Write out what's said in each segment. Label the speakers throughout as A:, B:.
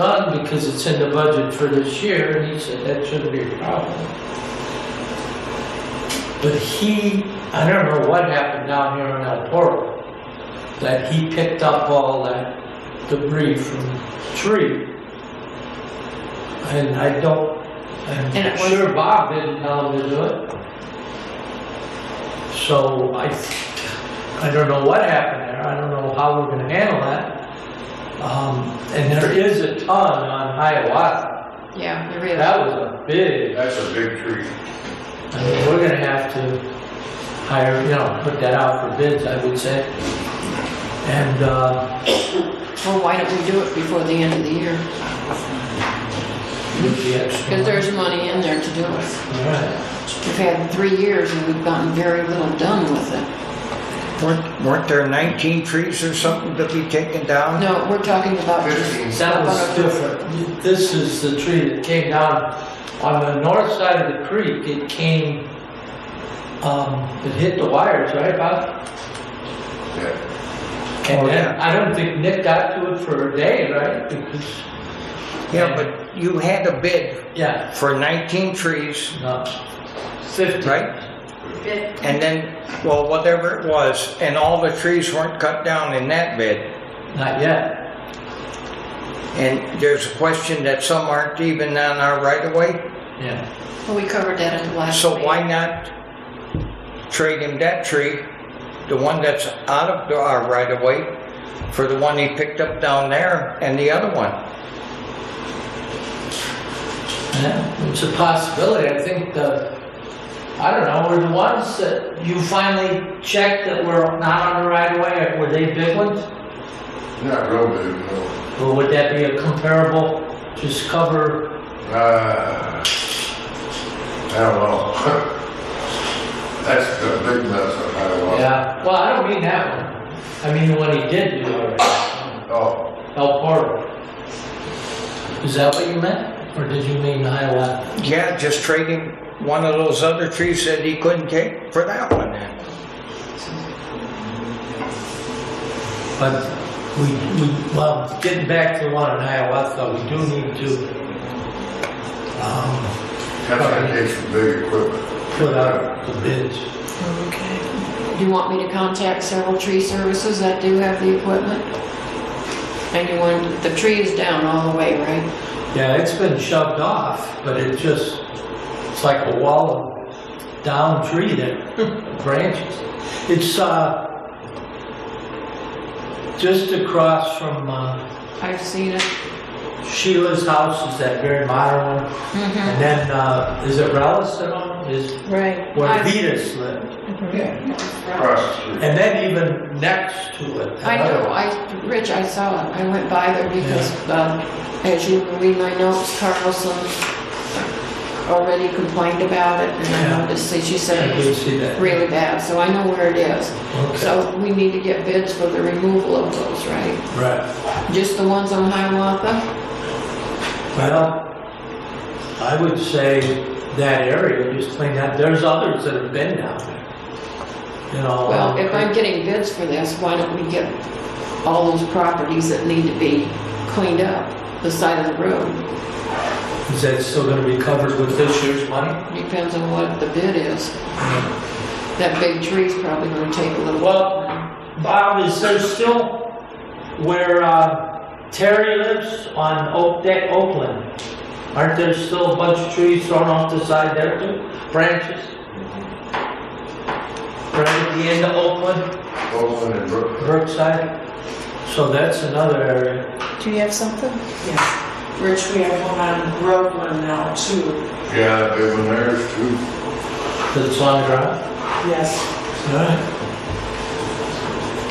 A: done because it's in the budget for this year, and he said that shouldn't be a problem. But he, I don't know what happened down here in El Toro, that he picked up all that debris from the tree. And I don't,
B: And
A: I'm
B: it was-
A: sure Bob didn't tell him to do it. So I, I don't know what happened there, I don't know how we're gonna handle that. Um, and there is a ton on Hiawatha.
B: Yeah, you really,
A: That was a big,
C: That's a big tree.
A: I mean, we're gonna have to hire, you know, put that out for bids, I would say. And, uh,
B: well, why don't we do it before the end of the year?
A: with the extra.
B: Because there's money in there to do it.
A: All right.
B: We've had three years and we've gotten very little done with it.
D: Weren't, weren't there 19 trees or something to be taken down?
B: No, we're talking about just.
A: That was different. This is the tree that came down on the north side of the creek. It came, um, it hit the wires, right, Bob?
C: Yeah.
A: And
D: Oh,
A: then, I don't think Nick got to it for a day, right? Because,
D: Yeah, but you had a bid
A: yeah,
D: for 19 trees,
A: no, fifty.
D: right? And then, well, whatever it was, and all the trees weren't cut down in that bid.
A: Not yet.
D: And there's a question that some aren't even on our right of way.
A: Yeah.
B: Well, we covered that at the last.
D: So
B: meeting.
D: why not trade him that tree, the one that's out of the- our right of way, for the one he picked up down there and the other one?
A: Yeah, it's a possibility. I think the, I don't know, were the ones that you finally checked that were not on the right of way, were they big ones?
C: Not real big, no.
A: Or would that be a comparable, just cover,
C: Uh, I don't know. That's a big mess of Hiawatha.
A: yeah, well, I don't mean that one. I mean the one he did do already,
C: Oh,
A: El Portal. Is that what you meant? Or did you mean Hiawatha?
D: Yeah, just trade him one of those other trees that he couldn't take for that one.
A: But we, we, well, getting back to the one in Hiawatha, we do need to, um,
C: that's gonna take some big equipment.
A: put out the bids.
B: Do you want me to contact several tree services that do have the equipment? And you want, the tree is down all the way, right?
A: Yeah, it's been shoved off, but it just, it's like a wall of down tree that branches. It's, uh, just across from uh,
B: I've seen it.
A: Sheila's house is that very modern one.
B: Mhm.
A: And then, uh, is it Rallis that own, is
B: Right.
A: where
B: I've-
A: Vetus lived?
C: Across the street.
A: And then even next to it.
B: I know, I, Rich, I saw it, I went by there because, uh, as you read my notes, Carlson already complained about it, and
A: Yeah.
B: I noticed, see, she
A: I
B: said it
A: did
B: was
A: see that.
B: really bad, so I know where it is.
A: Okay,
B: So we need to get bids for the removal of those, right?
A: right.
B: Just the ones on Hiawatha?
A: Well, I would say that area, just clean that, there's others that have been down there. You know.
B: Well, if
A: um,
B: I'm getting bids for this, why don't we get all those properties that need to be cleaned up, the side of the road?
A: Is that still gonna be covered with this year's money?
B: Depends on what the bid is. That big tree's probably gonna take a little
A: Well, Bob, is there still where uh, Terry lives on Oak Deck, Oakland? Aren't there still a bunch of trees thrown off the side there too? Branches? Right at the end of Oakland,
C: Oakland and Brook.
A: Brookside? So that's another area.
E: Do you have something? Yes. Rich, we have one on Groveland now too.
C: Yeah, that big one there is too.
A: That's on the ground?
E: Yes.
A: Alright.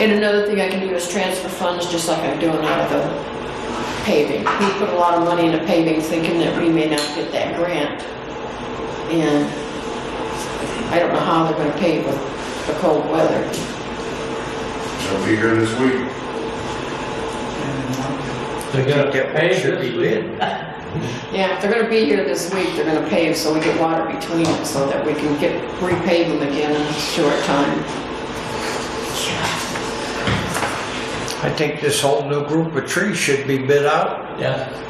B: And another thing I can do is transfer funds, just like I'm doing out of the paving. We put a lot of money into paving thinking that we may not get that grant. And I don't know how they're gonna pave with the cold weather.
C: They'll be here this week.
A: They're
D: I think that one should be bid.
B: Yeah, if they're gonna be here this week, they're gonna pave so we get water between it so that we can get, repave them again in a short time.
D: I think this whole new group of trees should be bid out.
A: Yeah,